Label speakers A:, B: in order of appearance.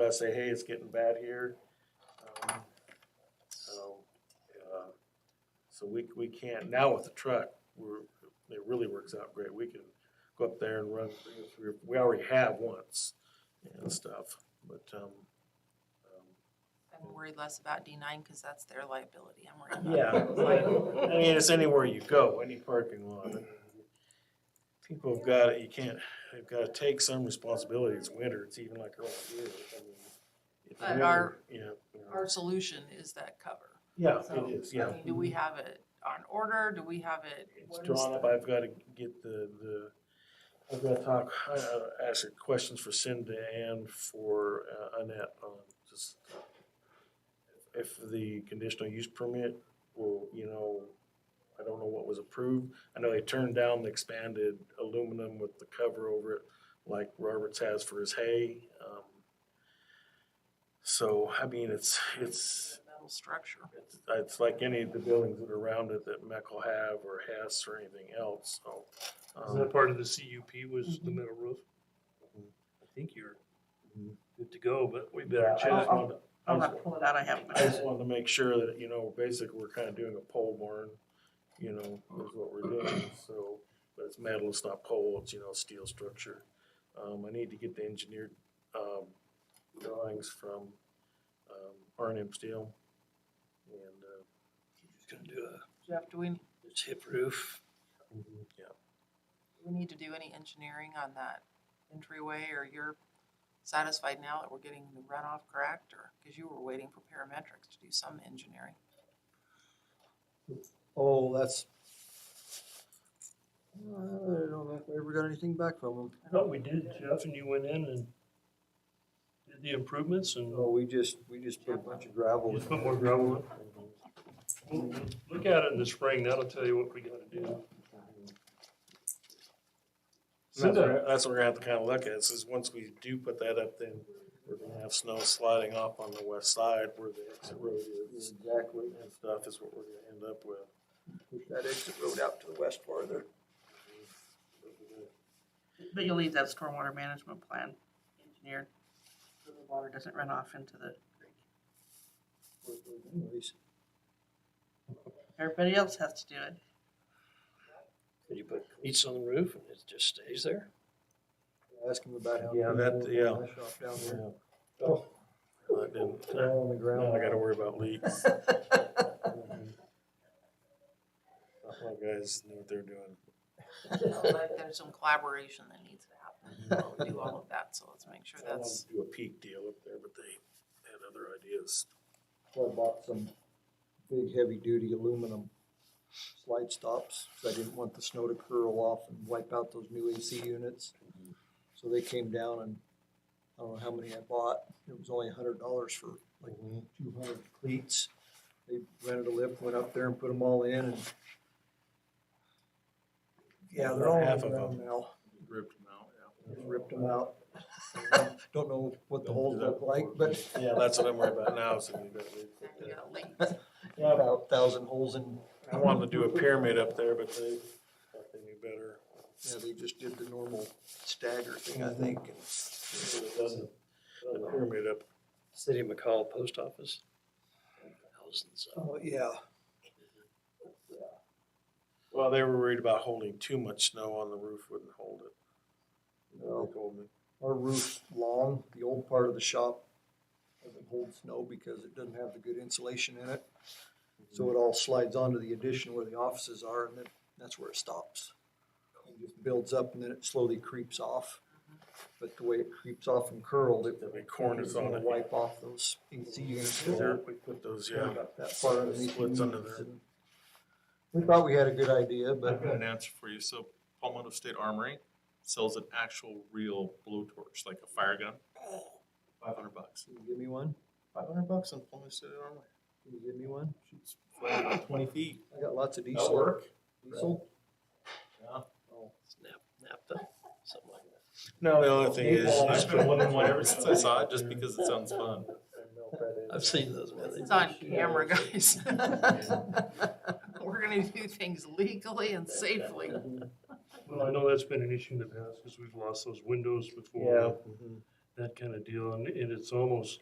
A: gotta say, hey, it's getting bad here. Um, So, uh, so we, we can't, now with the truck, we're, it really works out great. We can go up there and run three or three, we already have once and stuff, but, um, um,
B: I'm worried less about D nine because that's their liability. I'm worried
A: yeah.
B: about.
A: um, I mean, it's anywhere you go, any parking lot. People have got, you can't, they've gotta take some responsibility. It's winter, it's even like around here. I mean, it's
B: But
A: winter,
B: our-
A: Yeah. you know.
B: Our solution is that cover.
A: Yeah,
B: So,
A: it is,
B: I
A: yeah.
B: mean, Do we have it on order? Do we have it?
A: It's
B: what is
A: drawn
B: the-
A: up, I've gotta get the, the, I've gotta talk, I, uh, ask her questions for Cindy and for uh, Annette on just if the conditional use permit will, you know, I don't know what was approved. I know they turned down the expanded aluminum with the cover over it, like Roberts has for his hay. um, So, I mean, it's, it's,
B: Metal structure.
A: it's, it's like any of the buildings that are around it that Meckel will have or Hess or anything else, so.
C: Is that
A: um,
C: part of the CUP was the metal roof?
A: Mhm.
C: I think you're
A: Mhm.
C: good to go, but we
A: yeah,
C: better
A: I
C: check.
A: just wanted, I
B: I'm
A: just,
B: not pulling out, I haven't.
A: I just wanted to make sure that, you know, basically we're kind of doing a pole barn, you know, is what we're doing, so. But it's metal, it's not pole, it's, you know, steel structure. Um, I need to get the engineered, um, drawings from, um, R and M Steel. And, uh,
C: Just gonna do a,
B: Jeff, do we,
C: it's hip roof.
A: yeah,
B: we need to do any engineering on that entryway or you're satisfied now that we're getting the runoff correct or, because you were waiting for parametrics to do some engineering.
D: Oh, that's. I don't know if I ever got anything back from them.
C: I thought we did, Jeff, and you went in and did the improvements and
D: No, we just, we just put a bunch of gravel.
C: just put more gravel in.
E: Oh.
C: We'll- we'll Look at it in the spring, that'll tell you what we gotta do.
A: That's what, that's what we're gonna have to kind of look at, is once we do put that up, then we're gonna have snow sliding off on the west side where the exit road is
D: Exactly.
A: and stuff is what we're gonna end up with.
D: Push that exit road out to the west farther.
F: But you'll leave that stormwater management plan engineered, so the water doesn't run off into the creek.
D: Anyways,
F: Everybody else has to do it.
E: Could you put cleats on the roof and it just stays there?
D: Ask them about how.
A: Yeah, that- yeah.
D: My Shop down there.
A: Yeah,
D: Oh,
A: I didn't,
D: they're all on
A: now I
D: the ground.
A: gotta worry about leaks. My guys know what they're doing.
B: So, like, There's some collaboration that needs to happen, We'll do all of that, so let's make sure
A: I wanted
B: that's,
A: to Do a peak deal up there, but they had other ideas.
D: So I bought some big heavy duty aluminum slide stops, cause I didn't want the snow to curl off and wipe out those new AC units. So they came down and, I don't know how many I bought, it was only a hundred dollars for like two hundred cleats. They rented a lift, went up there and put them all in and. Yeah, they're all on
A: Half
D: the
A: of
D: ground
A: them.
D: now,
A: Ripped them out,
D: Just ripped them out. Don't know what the holes look like, but
A: Yeah, that's what I'm worried about now, so we got
B: we
A: leaks.
B: got a link.
D: yeah, about a thousand holes in
A: I wanted to do a pyramid up there, but they thought they knew better.
D: Yeah, they just did the normal stagger thing, I think. and-
A: So it doesn't- The pyramid up
E: City of McCall Post Office. Thousands of.
D: Oh, yeah.
A: Well, they were worried about holding too much snow on the roof wouldn't hold it.
D: No.
A: They told me.
D: Our roof's long, the old part of the shop doesn't hold snow because it doesn't have the good insulation in it. So it all slides onto the addition where the offices are and then that's where it stops. It just builds up and then it slowly creeps off. But the way it creeps off and curled, it
A: There'll be corners
D: it's
A: on
D: gonna
A: it.
D: wipe off those AC units.
A: Yeah, there, we put those, yeah.
D: About That far underneath. the
A: Slits under
D: units
A: there.
D: and- We thought we had a good idea,
G: I've
D: but.
G: got an answer for you. So Palmetto State Armory sells an actual real blowtorch, like a fire gun. Five hundred bucks.
D: Can you give me one?
G: Five hundred bucks on Palmetto State Armory.
D: Can you give me one?
G: Shoots fire about twenty feet.
D: I got lots of
G: That'll
D: diesel.
G: work.
D: Diesel?
G: Yeah.
D: Oh,
E: Nap, naphtha, something like that.
A: No, the only thing is.
G: I've been wanting one ever since I saw it, just because it sounds fun.
E: I've seen those. man.
B: This
E: They
B: is on
E: shoot out
B: camera,
E: of the-
B: guys. We're gonna do things legally and safely.
C: Well, I know that's been an issue in the past, cause we've lost those windows before.
A: Yeah.
C: And that kind of deal, and, and it's almost